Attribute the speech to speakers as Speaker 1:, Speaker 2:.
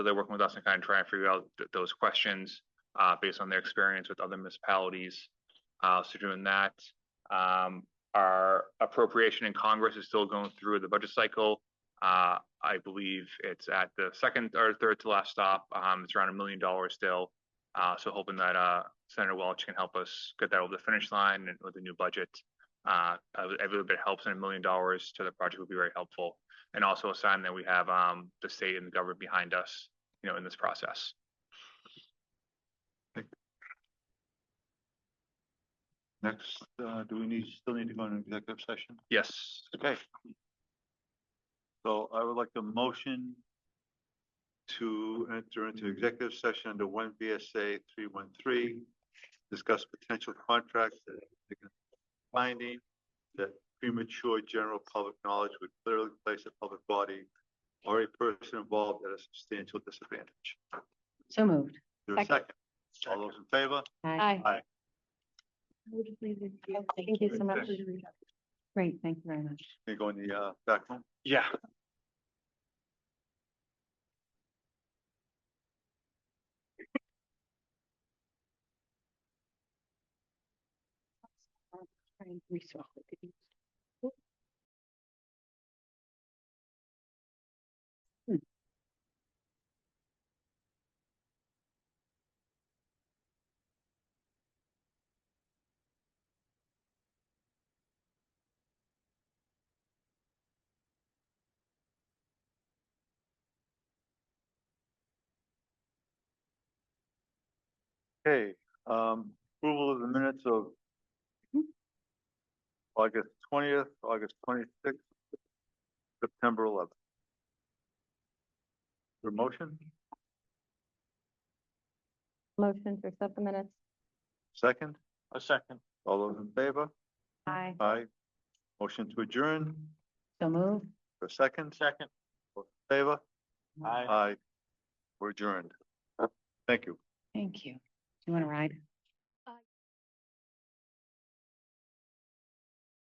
Speaker 1: So they're working with us and kind of trying to figure out th- those questions, uh, based on their experience with other municipalities. Uh, so doing that, um, our appropriation in Congress is still going through the budget cycle. Uh, I believe it's at the second or third to last stop. Um, it's around a million dollars still. Uh, so hoping that, uh, Senator Welch can help us get that over the finish line and with the new budget. Uh, every every little bit helps and a million dollars to the project would be very helpful. And also a sign that we have, um, the state and the government behind us, you know, in this process.
Speaker 2: Next, uh, do we need, still need to go into executive session?
Speaker 1: Yes,
Speaker 2: Okay. So I would like the motion to enter into executive session under one VSA three one three. Discuss potential contracts that finding that premature general public knowledge would clearly place a public body or a person involved at a substantial disadvantage.
Speaker 3: So moved.
Speaker 2: Is there a
Speaker 4: Second.
Speaker 2: second? All those in favor?
Speaker 4: Aye.
Speaker 2: Aye.
Speaker 4: Thank you so much.
Speaker 3: Great, thank you very much.
Speaker 2: Can you go in the, uh, back room?
Speaker 1: yeah.
Speaker 2: Okay, um, approval of the minutes of August twentieth, August twenty-sixth, September eleventh. Your motion,
Speaker 4: Motion to accept the minutes.
Speaker 2: second,
Speaker 1: A second.
Speaker 2: all those in favor?
Speaker 4: Aye.
Speaker 2: Aye. Motion to adjourn,
Speaker 3: So moved.
Speaker 2: for a second? Second. Favor?
Speaker 3: Aye.
Speaker 2: Aye. We're adjourned. Thank you.
Speaker 3: Thank you.